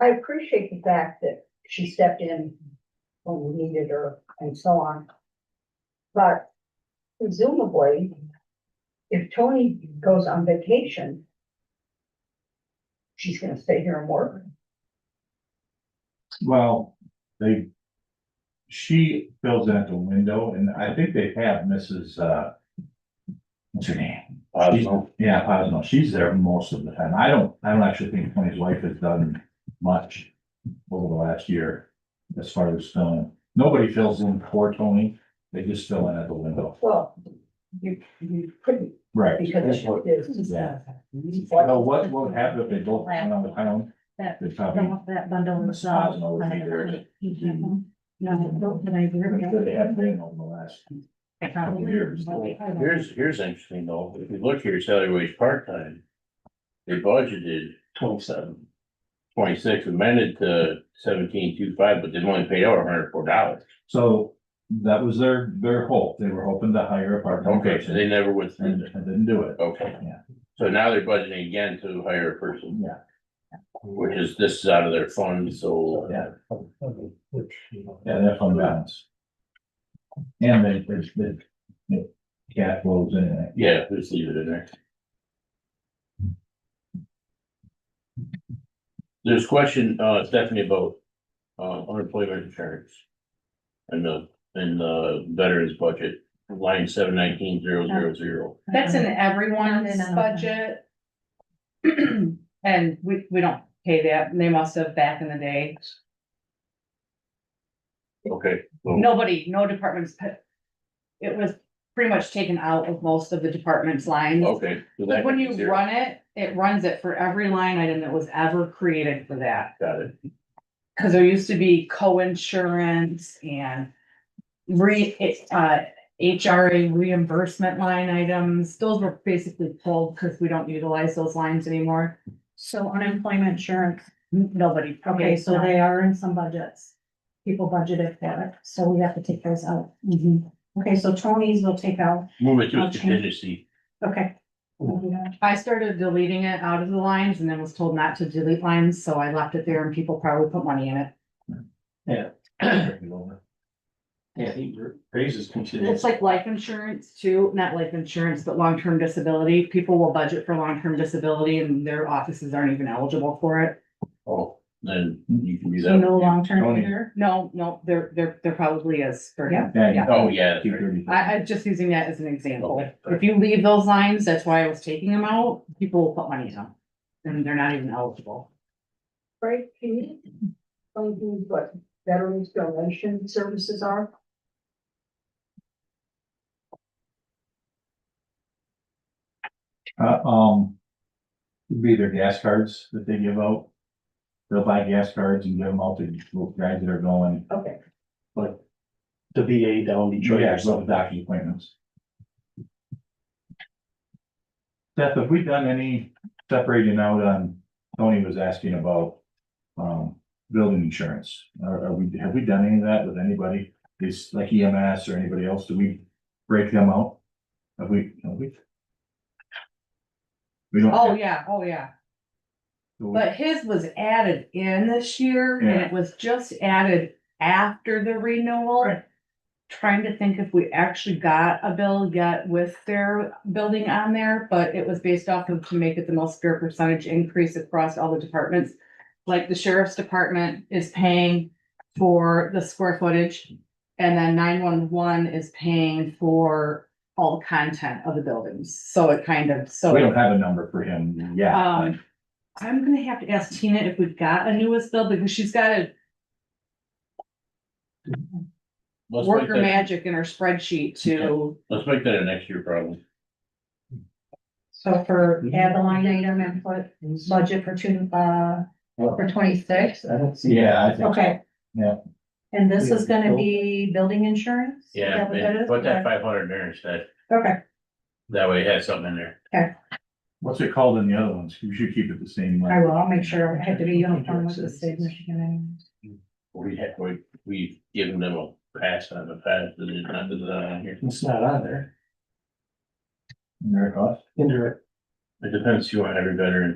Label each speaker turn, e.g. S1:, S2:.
S1: I appreciate the fact that she stepped in when we needed her and so on. But presumably, if Tony goes on vacation, she's gonna stay here and work.
S2: Well, they, she fills out the window and I think they have Mrs. uh. What's her name?
S3: Posno.
S2: She's- Yeah, Posno. She's there most of the time. I don't, I don't actually think Tony's wife has done much over the last year. As far as filling, nobody fills in for Tony. They just fill in at the window.
S1: Well, you, you couldn't
S2: Right.
S1: because she is.
S2: Yeah. So what, what would happen if they both went on the town?
S4: That-
S2: They'd probably.
S4: That that bundle was.
S2: Posno would be there.
S4: No, but Mm-hmm. I
S2: They have
S4: agree.
S2: been over the last
S4: Probably.
S2: Years.
S3: Here's, here's interesting though, if you look here, salary wage part-time. They budgeted
S5: Twenty-seven.
S3: twenty-six, amended to seventeen two five, but they've only paid out hundred four dollars.
S2: So that was their, their hope. They were hoping to hire a part-time
S3: Okay, so
S2: person
S3: they never went through
S2: and
S3: it.
S2: and didn't do it.
S3: Okay.
S2: Yeah.
S3: So now they're budgeting again to hire a person,
S2: Yeah,
S3: which is, this is out of their fund, so.
S2: Yeah.
S5: Which, you know.
S2: yeah, their fund balance. And they, they, they, you know, cash flows in and out.
S3: Yeah, just leave it in there. There's a question, uh, Stephanie, about, uh, unemployment insurance. And the, and the veterans budget, line seven nineteen zero zero zero.
S6: That's in
S4: No,
S6: everyone's
S4: no, no.
S6: budget. And we, we don't pay that, and they must have back in the day,
S3: Okay,
S6: nobody, no departments. pa- It was pretty much taken out of most of the department's lines.
S3: okay. so that
S6: When
S3: could be
S6: you
S3: zero.
S6: run it, it runs it for every line item that was ever created for that,
S3: Got it,
S6: cause there used to be co-insurance and. Re, it, uh, HRA reimbursement line items, those were basically pulled, cause we don't utilize those lines anymore.
S4: So unemployment insurance,
S6: Nobody.
S4: okay, so
S6: they.
S4: they are in some budgets. People budgeted for it, so we have to take those out. Okay, so Tony's will take out,
S3: move it to a
S4: Okay.
S3: contingency,
S4: okay.
S2: Mm-hmm.
S6: I started deleting it out of the lines and then was told not to delete lines, so I left it there and people probably put money in it.
S5: Yeah, he raises contingency.
S6: It's like life insurance too, not life insurance, but long-term disability. People will budget for long-term disability and their offices aren't even eligible for it.
S3: oh, then you can do
S4: So no
S3: that.
S4: long-term
S2: Tony.
S4: care.
S6: No, no, there, there, there probably is for him.
S2: Yeah.
S3: Oh, yeah, that's
S2: Two
S3: right.
S2: thirty.
S6: I, I'm just using that as an example.
S3: Okay.
S6: If you leave those lines, that's why I was taking them out, people will put money in them. And they're not even eligible.
S1: Right, can you tell me what veterans donation services are?
S2: Uh, um, it'd be their gas cards that they give out. They'll buy gas cards and give them out to guys that are going.
S1: Okay,
S5: The VA down Detroit
S2: Yeah,
S5: or
S2: so
S5: something.
S2: docking appointments. Seth, have we done any separating out on, Tony was asking about, um, building insurance? Are, are we, have we done any of that with anybody? Is like EMS or anybody else? Do we break them out? Have we, have we? We don't.
S6: Oh, yeah, oh, yeah. But his was added in this year and
S2: Yeah.
S6: it was just added after the renewal.
S2: Right.
S6: Trying to think if we actually got a bill yet with their building on there, but it was based off of to make it the most fair percentage increase across all the departments. Like the sheriff's department is paying for the square footage. And then nine one one is paying for all the content of the buildings, so it kind of, so.
S2: We don't have a number for him yet.
S6: Um, I'm gonna have to ask Tina if we've got a newest bill, because she's got a
S3: Let's make
S6: worker
S3: that-
S6: magic in her spreadsheet to,
S3: Let's make that a next year problem.
S4: So for
S2: Mm-hmm.
S4: add the line item and put budget for two, uh, for twenty-six,
S5: I don't see.
S2: Yeah, I think. so.
S4: okay.
S2: Yeah.
S4: And this is gonna be building insurance? Is
S3: Yeah,
S4: that what that
S3: man,
S4: is?
S3: put that five hundred there instead,
S4: Okay,
S3: that way it has something in there.
S2: What's it called in the other ones? We should keep it the same. like-
S4: I will, I'll make sure, I have to be uniform with the state of Michigan anyway.
S3: We have, we, we've given them a pass on the past, but uh, it's not, it's not on here.
S5: It's not on there,
S2: Very cost.
S5: indirect.
S3: It depends, you want every veteran